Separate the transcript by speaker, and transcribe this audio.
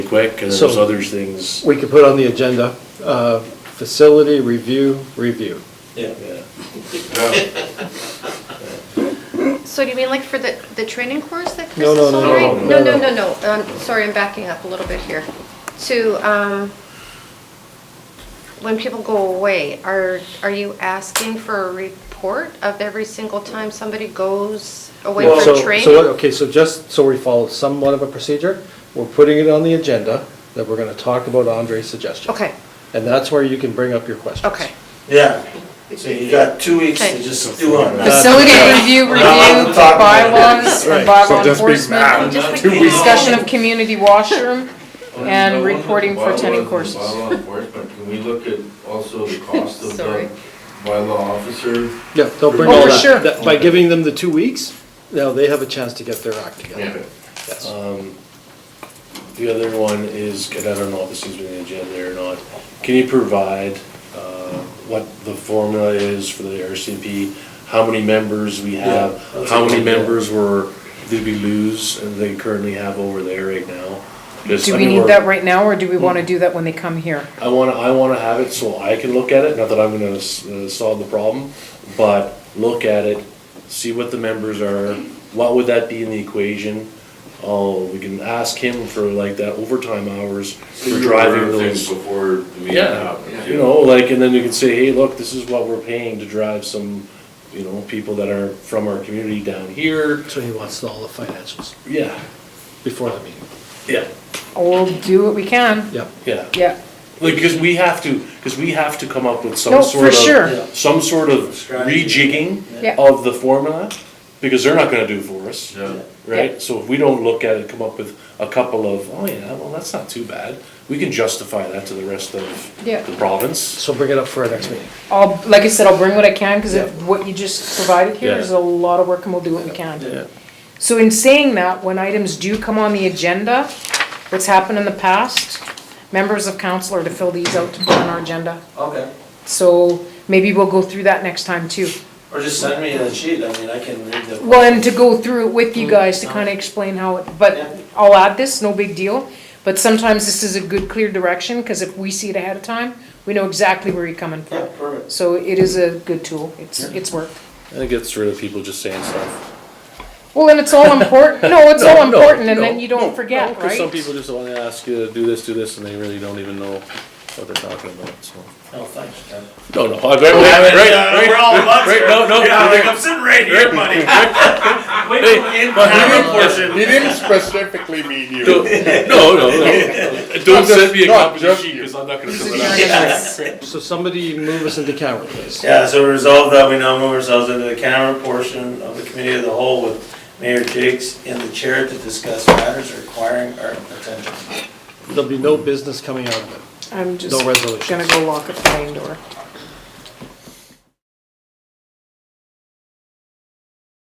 Speaker 1: quick, and then
Speaker 2: So-
Speaker 1: there's other things,
Speaker 2: We could put on the agenda, uh, facility review, review.
Speaker 3: Yeah.
Speaker 1: yeah.
Speaker 4: So do you mean like for the, the training course that Chris
Speaker 2: No,
Speaker 4: is
Speaker 2: no, no,
Speaker 4: on
Speaker 1: no,
Speaker 4: right?
Speaker 1: no,
Speaker 4: No,
Speaker 2: no,
Speaker 4: no, no, no, um, sorry, I'm backing up a little bit here. To, um, when people go away, are, are you asking for a report of every single time somebody goes away
Speaker 2: Well, so-
Speaker 4: for
Speaker 2: so
Speaker 4: training?
Speaker 2: what- Okay, so just so we follow somewhat of a procedure, we're putting it on the agenda that we're gonna talk about Andre's suggestion.
Speaker 4: Okay,
Speaker 2: And that's where you can bring up your questions.
Speaker 4: okay.
Speaker 3: Yeah, so you got two weeks
Speaker 4: Okay.
Speaker 3: to just do on that.
Speaker 5: Facility review, review,
Speaker 3: I'm talking about-
Speaker 5: bylaws,
Speaker 2: Right.
Speaker 5: and
Speaker 6: So
Speaker 5: bylaw
Speaker 6: just be mad.
Speaker 5: enforcement,
Speaker 4: Just
Speaker 6: Two
Speaker 4: like-
Speaker 6: weeks.
Speaker 5: discussion of community washroom, and reporting for attending courses.
Speaker 7: Bylaws and Bylaw enforcement, can we look at also the cost of
Speaker 5: Sorry.
Speaker 7: the bylaw officer?
Speaker 2: Yeah, they'll bring
Speaker 5: Oh,
Speaker 2: all
Speaker 5: for sure.
Speaker 2: that. that. By giving them the two weeks, now they have a chance to get their act together.
Speaker 7: Yeah.
Speaker 2: Yes.
Speaker 1: Um, The other one is, and I don't know if this is within the agenda or not, can you provide uh, what the formula is for the RCP? How many members we have,
Speaker 3: Yeah, that's
Speaker 1: how
Speaker 3: a
Speaker 1: many
Speaker 3: good idea.
Speaker 1: members were, did we lose and they currently have over there right now? Just, I
Speaker 5: Do we
Speaker 1: mean,
Speaker 5: need
Speaker 1: we're-
Speaker 5: that right now, or do we wanna do that when they come here?
Speaker 1: I wanna, I wanna have it so I can look at it, not that I'm gonna s- uh, solve the problem, but look at it, see what the members are, what would that be in the equation? Oh, we can ask him for like that overtime hours
Speaker 7: You
Speaker 1: for
Speaker 7: were aware
Speaker 1: driving
Speaker 7: of Things
Speaker 1: those.
Speaker 7: before the meeting
Speaker 1: Yeah,
Speaker 7: happens.
Speaker 1: you know, like, and then you can say, hey, look, this is what we're paying to drive some, you know, people that are from our community down here.
Speaker 2: So he wants all the financials
Speaker 1: Yeah,
Speaker 2: before the meeting.
Speaker 1: yeah,
Speaker 5: We'll do what we can,
Speaker 2: Yeah.
Speaker 1: yeah.
Speaker 5: yeah.
Speaker 1: Like, because we have to, because we have to come up with
Speaker 5: No,
Speaker 1: some
Speaker 5: for
Speaker 1: sort of.
Speaker 5: sure.
Speaker 3: Yeah.
Speaker 1: Some sort of
Speaker 3: Strategy.
Speaker 1: rejigging
Speaker 5: Yeah.
Speaker 1: of the formula, because they're not gonna do for us,
Speaker 7: Yeah.
Speaker 1: right? So if we don't look at it, come up with a couple of, oh yeah, well, that's not too bad, we can justify that to the rest of
Speaker 5: Yeah.
Speaker 1: the province.
Speaker 2: So bring it up for our next meeting.
Speaker 5: I'll, like I said, I'll bring what I can, because
Speaker 2: Yeah.
Speaker 5: what you just provided here
Speaker 1: Yeah.
Speaker 5: is a lot of work, and we'll do what we
Speaker 3: Yeah.
Speaker 5: can. So in saying that, when items do come on the agenda, what's happened in the past, members of council are to fill these out to put on our agenda.
Speaker 3: Okay,
Speaker 5: So maybe we'll go through that next time too.
Speaker 3: or just send me the sheet, I mean, I can read the.
Speaker 5: Well, and to go through it with you
Speaker 1: Mm-hmm.
Speaker 5: guys to kind of explain how, it.
Speaker 3: Yeah.
Speaker 5: but I'll add this, no big deal. But sometimes this is a good clear direction, because if we see it ahead of time, we know exactly where you're coming
Speaker 3: Yeah,
Speaker 5: from.
Speaker 3: perfect.
Speaker 5: So it is a good tool, it's, it's worked.
Speaker 1: I think it gets rid of people just saying stuff.
Speaker 5: Well, and it's all important, no, it's
Speaker 1: No,
Speaker 5: all
Speaker 1: no,
Speaker 5: important, and then
Speaker 1: no,
Speaker 5: you
Speaker 1: no,
Speaker 5: don't
Speaker 1: no,
Speaker 5: forget,
Speaker 1: 'cause Some
Speaker 5: right?
Speaker 1: people just wanna ask you to do this, do this, and they really don't even know what they're talking about, so.
Speaker 3: No, thanks, Ken.
Speaker 1: No, no, I- right, right, right, right,
Speaker 6: We're all buds
Speaker 1: right,
Speaker 6: here.
Speaker 1: no, no.
Speaker 6: Yeah, like I'm sitting right here, buddy.
Speaker 1: Hey, but-
Speaker 6: He didn't specifically mean you.
Speaker 1: Don't- No, no, no. Don't send me a
Speaker 6: Not
Speaker 1: copy of
Speaker 6: just
Speaker 1: sheet,
Speaker 6: you.
Speaker 1: because I'm not gonna fill it out.
Speaker 5: Yes.
Speaker 2: So somebody move us into camera, please.
Speaker 3: Yeah, so resolve that we now move ourselves into the camera portion of the committee of the whole with Mayor Jakes in the chair to discuss matters requiring our attention.
Speaker 2: There'll be no business coming out of it.
Speaker 5: I'm just
Speaker 2: resolutions.
Speaker 5: gonna go lock a plane door.